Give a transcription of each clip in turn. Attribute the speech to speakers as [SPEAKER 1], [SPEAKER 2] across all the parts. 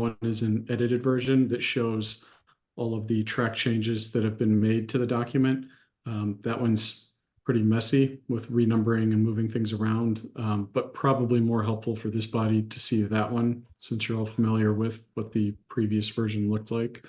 [SPEAKER 1] One is an edited version that shows all of the track changes that have been made to the document. Um, that one's pretty messy with renumbering and moving things around, um, but probably more helpful for this body to see that one, since you're all familiar with what the previous version looked like.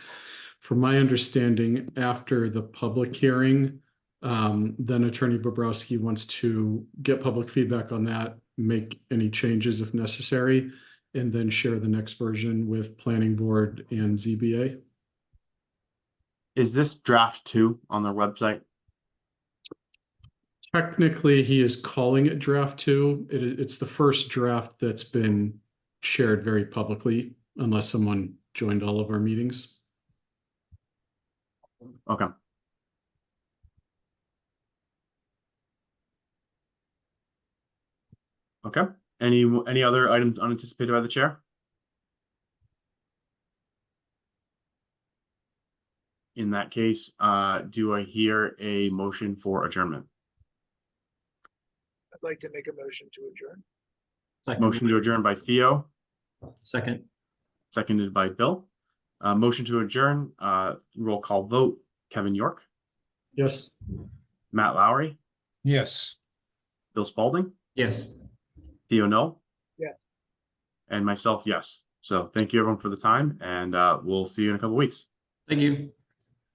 [SPEAKER 1] From my understanding, after the public hearing, um, then Attorney Bobrowski wants to get public feedback on that, make any changes if necessary, and then share the next version with Planning Board and ZBA.
[SPEAKER 2] Is this draft two on their website?
[SPEAKER 1] Technically, he is calling it draft two. It, i- it's the first draft that's been shared very publicly, unless someone joined all of our meetings.
[SPEAKER 2] Okay. Okay, any, any other items unanticipated by the chair? In that case, uh, do I hear a motion for adjournment?
[SPEAKER 3] I'd like to make a motion to adjourn.
[SPEAKER 2] Motion to adjourn by Theo,
[SPEAKER 4] Second,
[SPEAKER 2] seconded by Bill. Uh, motion to adjourn, uh, roll call vote, Kevin York,
[SPEAKER 1] Yes,
[SPEAKER 2] Matt Lowry,
[SPEAKER 5] Yes.
[SPEAKER 2] Bill Spalding?
[SPEAKER 4] yes.
[SPEAKER 2] Theo, no?
[SPEAKER 3] Yeah.
[SPEAKER 2] And myself, yes. So thank you everyone for the time and uh, we'll see you in a couple weeks.
[SPEAKER 4] Thank you.